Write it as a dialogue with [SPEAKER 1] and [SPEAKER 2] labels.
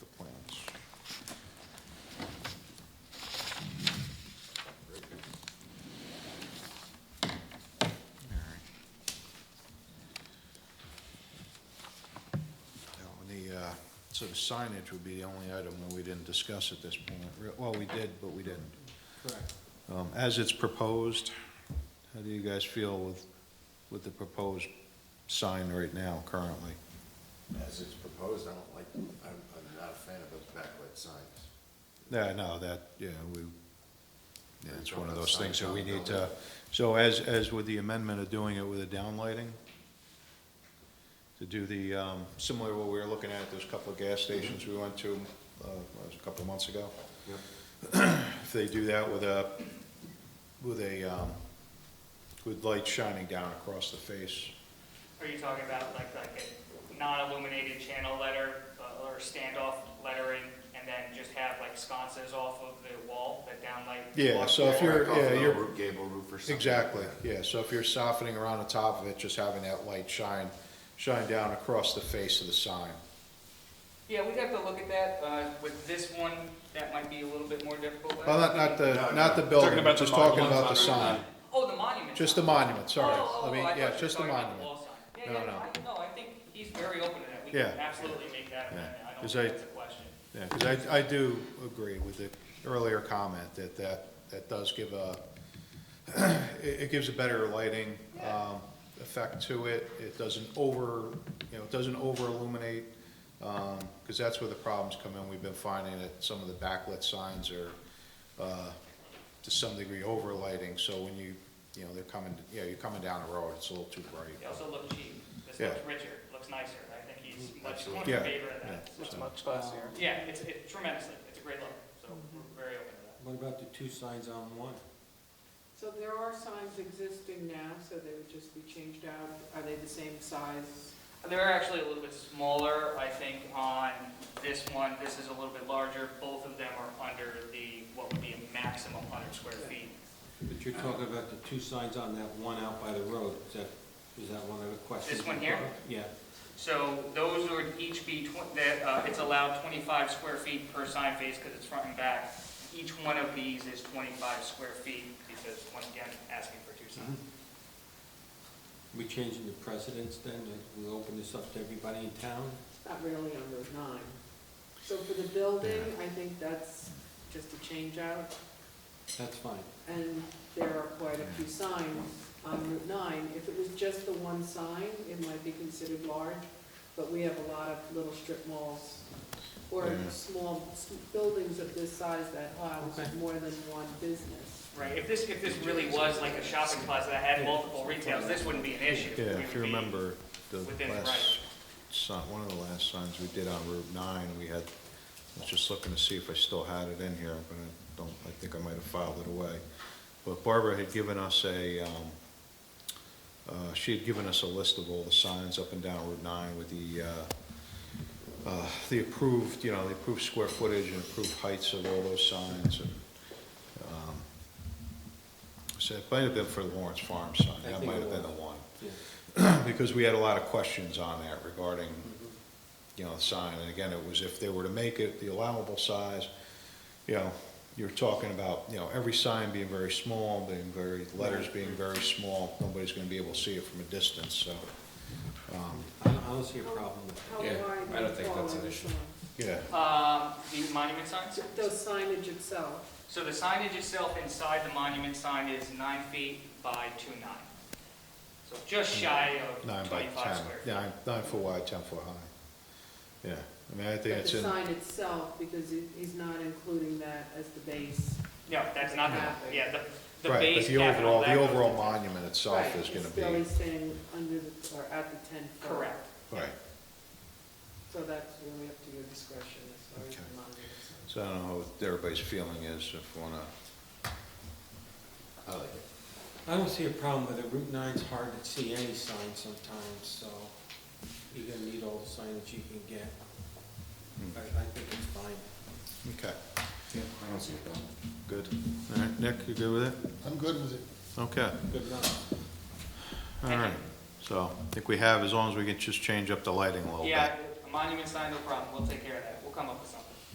[SPEAKER 1] uh, So signage would be the only item that we didn't discuss at this point. Re- Well, we did, but we didn't.
[SPEAKER 2] Correct.
[SPEAKER 1] Um, As it's proposed, how do you guys feel with, with the proposed sign right now currently?
[SPEAKER 3] As it's proposed, I don't like, I'm, I'm not a fan of those backlit signs.
[SPEAKER 1] Yeah, no, that, yeah, we, yeah, it's one of those things that we need to,
[SPEAKER 3] Signs
[SPEAKER 1] so as, as with the amendment of doing it with a downlighting, to do the, um, similar to what we were looking at, those couple of gas stations we went to, uh, what was it, a couple of months ago.
[SPEAKER 3] Yep.
[SPEAKER 1] If they do that with a, with a, um, with light shining down across the face,
[SPEAKER 4] Are you talking about like, like a non-illuminated channel letter uh, or standoff lettering and then just have like sconces off of the wall that downlight?
[SPEAKER 1] yeah, so if you're,
[SPEAKER 3] Back off
[SPEAKER 1] yeah,
[SPEAKER 3] the
[SPEAKER 1] you're,
[SPEAKER 3] roof- Gable roof or something.
[SPEAKER 1] Exactly, yeah, so if you're softening around the top of it, just having that light shine, shine down across the face of the sign.
[SPEAKER 4] Yeah, we'd have to look at that. Uh, With this one, that might be a little bit more difficult.
[SPEAKER 1] Well, not, not the,
[SPEAKER 3] No,
[SPEAKER 1] not the
[SPEAKER 3] no.
[SPEAKER 1] building,
[SPEAKER 5] Talking about
[SPEAKER 1] just
[SPEAKER 5] the mon-
[SPEAKER 1] talking
[SPEAKER 5] ones
[SPEAKER 1] about the
[SPEAKER 5] under
[SPEAKER 1] sign,
[SPEAKER 4] Oh, the monument.
[SPEAKER 1] just the
[SPEAKER 4] sign.
[SPEAKER 1] monument, sorry,
[SPEAKER 4] Oh, oh,
[SPEAKER 1] I mean,
[SPEAKER 4] oh, I
[SPEAKER 1] yeah,
[SPEAKER 4] thought you
[SPEAKER 1] just the
[SPEAKER 4] were talking about
[SPEAKER 1] monument.
[SPEAKER 4] wall sign.
[SPEAKER 1] No,
[SPEAKER 4] Yeah,
[SPEAKER 1] no.
[SPEAKER 4] yeah, I, no, I think he's very open to that. We
[SPEAKER 1] Yeah.
[SPEAKER 4] can absolutely make that amendment. I don't
[SPEAKER 1] Is
[SPEAKER 4] think
[SPEAKER 1] that-
[SPEAKER 4] that's a question.
[SPEAKER 1] Yeah, because I, I do agree with the earlier comment that that, that does give a, it, it gives a better lighting, um, effect to it. It doesn't over, you know, it doesn't over illuminate, um, because that's where the problems come in. We've been finding that some of the backlit signs are, uh, to some degree over lighting, so when you, you know, they're coming, you know, you're coming down the road, it's a little too bright.
[SPEAKER 4] They also look cheap. This
[SPEAKER 1] Yeah.
[SPEAKER 4] looks richer, looks nicer. I think he's much more
[SPEAKER 1] Yeah,
[SPEAKER 4] in favor of that.
[SPEAKER 1] yeah.
[SPEAKER 4] So-
[SPEAKER 6] much classier.
[SPEAKER 4] Yeah, it's it tremendously, it's a great look, so we're very open to that.
[SPEAKER 2] What about the two signs on one?
[SPEAKER 6] So there are signs existing now, so they would just be changed out. Are they the same size?
[SPEAKER 4] They're actually a little bit smaller, I think, on this one, this is a little bit larger, both of them are under the, what would be a maximum hundred square feet.
[SPEAKER 2] But you're talking about the two signs on that one out by the road, is that, is that one of the questions?
[SPEAKER 4] This one here?
[SPEAKER 2] Yeah,
[SPEAKER 4] So those would each be, twen- that, uh, it's allowed twenty-five square feet per sign face because it's front and back. Each one of these is twenty-five square feet because, once again, asking for two signs.
[SPEAKER 2] we changing the precedence then, like, we open this up to everybody in town?
[SPEAKER 6] It's Not really on Route 9. So for the building, I think that's just a change out.
[SPEAKER 2] That's fine.
[SPEAKER 6] And there are quite a few signs on Route 9. If it was just the one sign, it might be considered large, but we have a lot of little strip malls or
[SPEAKER 1] Yeah.
[SPEAKER 6] small s- buildings of this size that house
[SPEAKER 2] Okay.
[SPEAKER 6] more than one business.
[SPEAKER 4] Right, if this, if this really was like a shopping plaza that had multiple retails, this wouldn't be an issue.
[SPEAKER 1] Yeah,
[SPEAKER 4] We
[SPEAKER 1] if
[SPEAKER 4] would
[SPEAKER 1] you
[SPEAKER 4] be-
[SPEAKER 1] remember, the
[SPEAKER 4] within the
[SPEAKER 1] last,
[SPEAKER 4] right.
[SPEAKER 1] si- one of the last signs we did on Route 9, we had, I was just looking to see if I still had it in here, but I don't, I think I might have filed it away. But Barbara had given us a, um, uh, she had given us a list of all the signs up and down Route 9 with the, uh, uh, the approved, you know, the approved square footage and approved heights of all those signs and, um, so it might have been for the Lawrence Farm sign,
[SPEAKER 2] I
[SPEAKER 1] that
[SPEAKER 2] think
[SPEAKER 1] might
[SPEAKER 2] it
[SPEAKER 1] have been the
[SPEAKER 2] was.
[SPEAKER 1] one
[SPEAKER 2] Yeah.
[SPEAKER 1] because we had a lot of questions on that regarding, you know, the sign, and again, it was if they were to make it the allowable size, you know, you're talking about, you know, every sign being very small, being very, letters being very small, nobody's gonna be able to see it from a distance, so, um,
[SPEAKER 2] I don't, I don't see a problem with
[SPEAKER 6] How
[SPEAKER 5] Yeah,
[SPEAKER 6] wide
[SPEAKER 5] I don't
[SPEAKER 6] would
[SPEAKER 5] think
[SPEAKER 6] fall
[SPEAKER 5] that's
[SPEAKER 6] on
[SPEAKER 5] an
[SPEAKER 6] the
[SPEAKER 5] issue.
[SPEAKER 6] sign?
[SPEAKER 1] yeah.
[SPEAKER 4] Um, the monument signs?
[SPEAKER 6] So The signage itself,
[SPEAKER 4] So the signage itself inside the monument sign is nine feet by two nine. So just shy of
[SPEAKER 1] Mm. Nine by
[SPEAKER 4] twenty-five
[SPEAKER 1] ten,
[SPEAKER 4] square feet.
[SPEAKER 1] nine, nine foot wide, ten foot high. Yeah, I mean, I think
[SPEAKER 6] but
[SPEAKER 1] it's
[SPEAKER 6] the
[SPEAKER 1] in,
[SPEAKER 6] sign itself, because he- he's not including that as the base.
[SPEAKER 4] No, that's not,
[SPEAKER 6] Halfway.
[SPEAKER 4] the yeah, the, the
[SPEAKER 1] right, but
[SPEAKER 4] base
[SPEAKER 1] the
[SPEAKER 4] capital.
[SPEAKER 1] overall,
[SPEAKER 4] that
[SPEAKER 1] the
[SPEAKER 4] goes
[SPEAKER 1] overall
[SPEAKER 4] to-
[SPEAKER 1] monument itself
[SPEAKER 6] Right,
[SPEAKER 1] is gonna
[SPEAKER 6] It's
[SPEAKER 1] be,
[SPEAKER 6] still he's saying under the, or at the ten foot.
[SPEAKER 4] Correct.
[SPEAKER 1] right.
[SPEAKER 6] So that's really up to your discretion as far as
[SPEAKER 1] Okay.
[SPEAKER 6] the monument. is concerned.
[SPEAKER 1] So I don't know what everybody's feeling is, if you wanna
[SPEAKER 3] I like it.
[SPEAKER 2] it. I don't see a problem with it, Route nine's hard to see any sign sometimes, so you're gonna need all the signage you can get.
[SPEAKER 1] Hmm.
[SPEAKER 2] I, I think it's fine.
[SPEAKER 1] Okay,
[SPEAKER 3] I don't see a problem.
[SPEAKER 1] good. All right, Nick, you good with it?
[SPEAKER 3] I'm good with it.
[SPEAKER 1] Okay,
[SPEAKER 2] Good enough.
[SPEAKER 1] all right. So I think we have, as long as we can just change up the lighting a little bit.
[SPEAKER 4] Yeah, a monument sign, no problem, we'll take care of that, we'll come up with something.